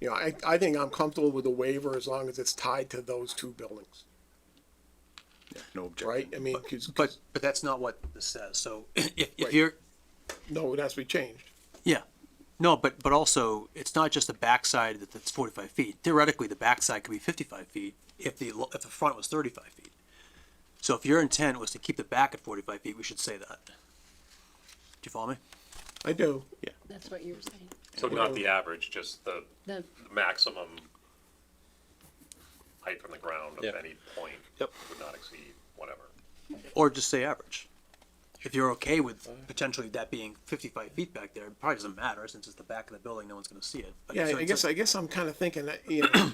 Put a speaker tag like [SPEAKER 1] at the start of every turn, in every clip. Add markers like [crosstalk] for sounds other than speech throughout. [SPEAKER 1] You know, I, I think I'm comfortable with the waiver as long as it's tied to those two buildings,
[SPEAKER 2] No objection.
[SPEAKER 1] right? I mean, 'cause-
[SPEAKER 3] But, but that's not what this says, so [clears throat] if,
[SPEAKER 1] Right.
[SPEAKER 3] if you're,
[SPEAKER 1] no, it has to be changed.
[SPEAKER 3] yeah, no, but, but also, it's not just the backside that, that's forty-five feet. Theoretically, the backside could be fifty-five feet if the, lo- if the front was thirty-five feet. So if your intent was to keep the back at forty-five feet, we should say that. Do you follow me?
[SPEAKER 1] I do.
[SPEAKER 4] That's what you were saying.
[SPEAKER 5] So not the average, just the
[SPEAKER 4] The,
[SPEAKER 5] maximum height from the ground of
[SPEAKER 3] Yeah.
[SPEAKER 5] any point
[SPEAKER 3] Yep.
[SPEAKER 5] would not exceed whatever.
[SPEAKER 3] Or just say average. If you're okay with potentially that being fifty-five feet back there, it probably doesn't matter, since it's the back of the building, no one's gonna see it. But-
[SPEAKER 1] Yeah,
[SPEAKER 3] so
[SPEAKER 1] I
[SPEAKER 3] it's
[SPEAKER 1] guess,
[SPEAKER 3] like-
[SPEAKER 1] I guess I'm kind of thinking that, you
[SPEAKER 3] [coughs]
[SPEAKER 1] know,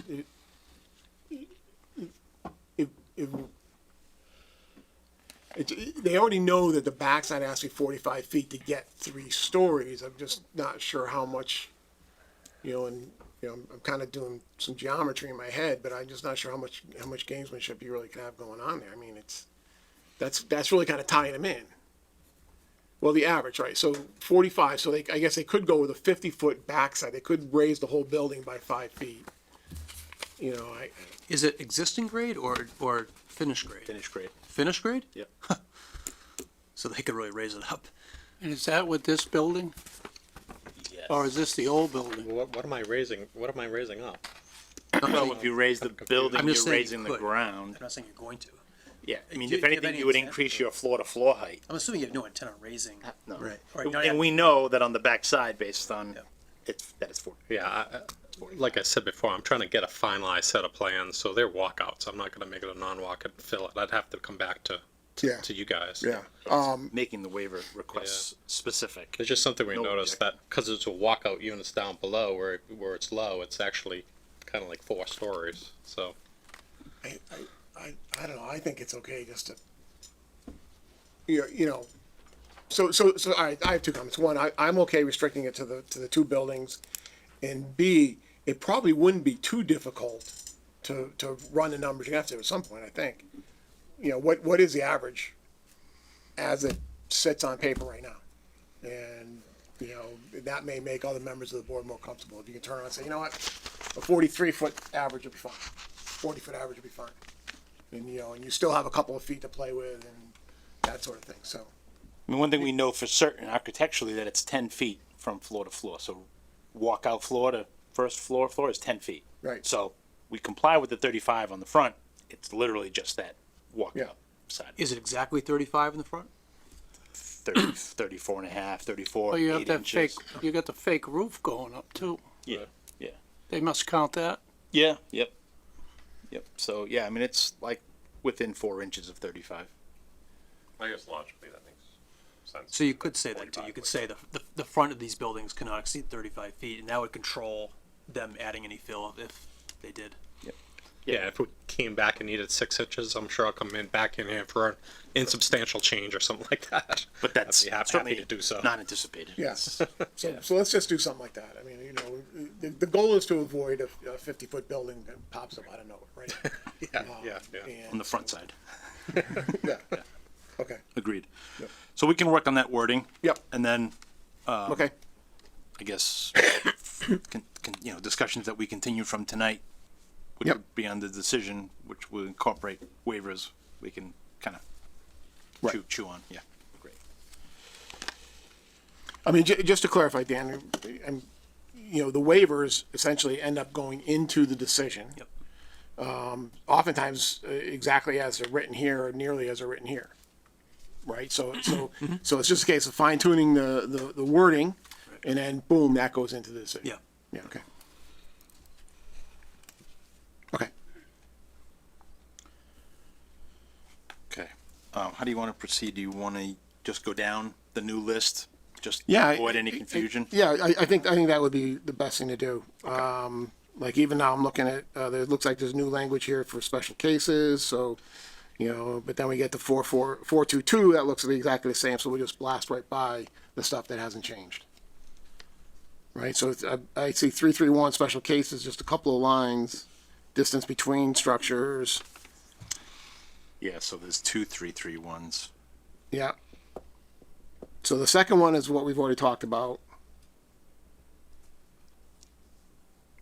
[SPEAKER 1] it- if, if, it, they already know that the backside has to be forty-five feet to get three stories, I'm just not sure how much, you know, and, you know, I'm- I'm kind of doing some geometry in my head, but I'm just not sure how much, how much gamesmanship you really can have going on there, I mean, it's, that's, that's really kind of tying them in. Well, the average, right? So forty-five. So they, I guess they could go with a fifty-foot backside. They could raise the whole building by five feet. You know, I,
[SPEAKER 3] Is it existing grade or, or finished grade?
[SPEAKER 2] Finish grade.
[SPEAKER 3] Finish grade?
[SPEAKER 2] Yep.
[SPEAKER 3] So they could really raise it up.
[SPEAKER 6] And is that with this building? Or is this the old building?
[SPEAKER 7] What, what am I raising? What am I raising up?
[SPEAKER 2] Well, if you raise the building,
[SPEAKER 3] I'm just
[SPEAKER 2] you're
[SPEAKER 3] saying you
[SPEAKER 2] raising the
[SPEAKER 3] could.
[SPEAKER 2] ground.
[SPEAKER 3] I'm not saying you're going to.
[SPEAKER 2] Yeah, I mean,
[SPEAKER 3] Do you-
[SPEAKER 2] if
[SPEAKER 3] do you have
[SPEAKER 2] anything,
[SPEAKER 3] any
[SPEAKER 2] you would
[SPEAKER 3] example?
[SPEAKER 2] increase your floor to floor height.
[SPEAKER 3] I'm assuming you have no intent on raising.
[SPEAKER 2] No.
[SPEAKER 3] Right. All right, now
[SPEAKER 2] And
[SPEAKER 3] I-
[SPEAKER 2] we know that on the back side, based on,
[SPEAKER 3] Yeah.
[SPEAKER 2] it's, that it's forty.
[SPEAKER 7] Yeah, I, I- like I said before, I'm trying to get a finalized set of plans, so they're walkouts. I'm not gonna make it a non-walkout and fill it. I'd have to come back to,
[SPEAKER 1] yeah,
[SPEAKER 7] to you guys.
[SPEAKER 1] yeah.
[SPEAKER 3] Mm-hmm.
[SPEAKER 1] Um,
[SPEAKER 2] Making the waiver requests specific.
[SPEAKER 7] It's just something we
[SPEAKER 2] No
[SPEAKER 7] noticed that,
[SPEAKER 2] objection.
[SPEAKER 7] cause it's a walkout units down below where, where it's low, it's actually kinda like four stories, so.
[SPEAKER 1] I, I, I, I don't know. I think it's okay just to, you know, you know. So, so, so, all right, I have two comments. One, I, I'm okay restricting it to the, to the two buildings. And B, it probably wouldn't be too difficult to, to run the numbers. You have to at some point, I think. You know, what, what is the average as it sits on paper right now? And, you know, that may make other members of the board more comfortable. If you can turn around and say, you know what, a forty-three foot average would be fine. Forty foot average would be fine. And, you know, and you still have a couple of feet to play with and that sort of thing, so.
[SPEAKER 2] I mean, one thing we know for certain architecturally that it's ten feet from floor to floor. So walkout floor to first floor floor is ten feet.
[SPEAKER 1] Right.
[SPEAKER 2] So we comply with the thirty-five on the front. It's literally just that
[SPEAKER 1] Yeah.
[SPEAKER 2] walkout side.
[SPEAKER 3] Is it exactly thirty-five in the front?
[SPEAKER 2] 30, 34 and a half, 34,
[SPEAKER 6] Oh, you have
[SPEAKER 2] eight
[SPEAKER 6] that fake,
[SPEAKER 2] inches.
[SPEAKER 6] you got the fake roof going up too.
[SPEAKER 2] Yeah, yeah,
[SPEAKER 6] They must count that.
[SPEAKER 2] yeah, yep, yep. So yeah, I mean it's like within four inches of 35.
[SPEAKER 5] I guess logically that makes sense.
[SPEAKER 3] So you could say that too. You could say the, the, the front of these buildings cannot exceed thirty-five feet, and that would control them adding any fill if they did.
[SPEAKER 7] Yeah, if we came back and needed six inches, I'm sure I'll come in, back in here for an insubstantial change or something like that.
[SPEAKER 2] But that's
[SPEAKER 7] I'd be hap-
[SPEAKER 2] certainly
[SPEAKER 7] happy to do so.
[SPEAKER 2] Not anticipated.
[SPEAKER 7] [laughs]
[SPEAKER 1] Yes. So, so let's just do something like that. I mean, you know, the, the goal is to avoid a, a fifty-foot building that pops up out of nowhere, right?
[SPEAKER 7] [laughs]
[SPEAKER 1] Um,
[SPEAKER 7] Yeah, yeah, yeah.
[SPEAKER 2] On the front side.
[SPEAKER 1] Yeah. Okay,
[SPEAKER 2] Agreed. So we can work on that wording.
[SPEAKER 1] Yep.
[SPEAKER 2] And then Um,
[SPEAKER 1] okay,
[SPEAKER 2] I guess, con, con, you know, discussions that we continue from tonight, which
[SPEAKER 1] Yep.
[SPEAKER 2] would be on the decision, which will incorporate waivers, we can kind of
[SPEAKER 1] Right.
[SPEAKER 2] chew, chew on, yeah.
[SPEAKER 1] I mean, ju- just to clarify, Dan, and, you know, the waivers essentially end up going into the decision.
[SPEAKER 3] Yep.
[SPEAKER 1] Um, oftentimes, uh, exactly as they're written here, or nearly as they're written here. Right, so, so,
[SPEAKER 3] Mm-hmm.
[SPEAKER 1] so it's just a case of fine tuning the, the, the wording, and then boom, that goes into the decision.
[SPEAKER 3] Yeah.
[SPEAKER 1] Yeah, okay. Okay.
[SPEAKER 2] Okay. Um, how do you want to proceed? Do you want to just go down the new list? Just
[SPEAKER 1] Yeah, I-
[SPEAKER 2] avoid any confusion?
[SPEAKER 1] Yeah, I, I think, I think that would be the best thing to do. Um, like even now I'm looking at, uh, there, it looks like there's new language here for special cases, so, you know, but then we get to four, four, four, two, two, that looks exactly the same, so we just blast right by the stuff that hasn't changed. Right, so it's, I, I see three, three, one, special cases, just a couple of lines, distance between structures,
[SPEAKER 2] Yeah, so there's two, three, three ones.
[SPEAKER 1] yeah. So the second one is what we've already talked about.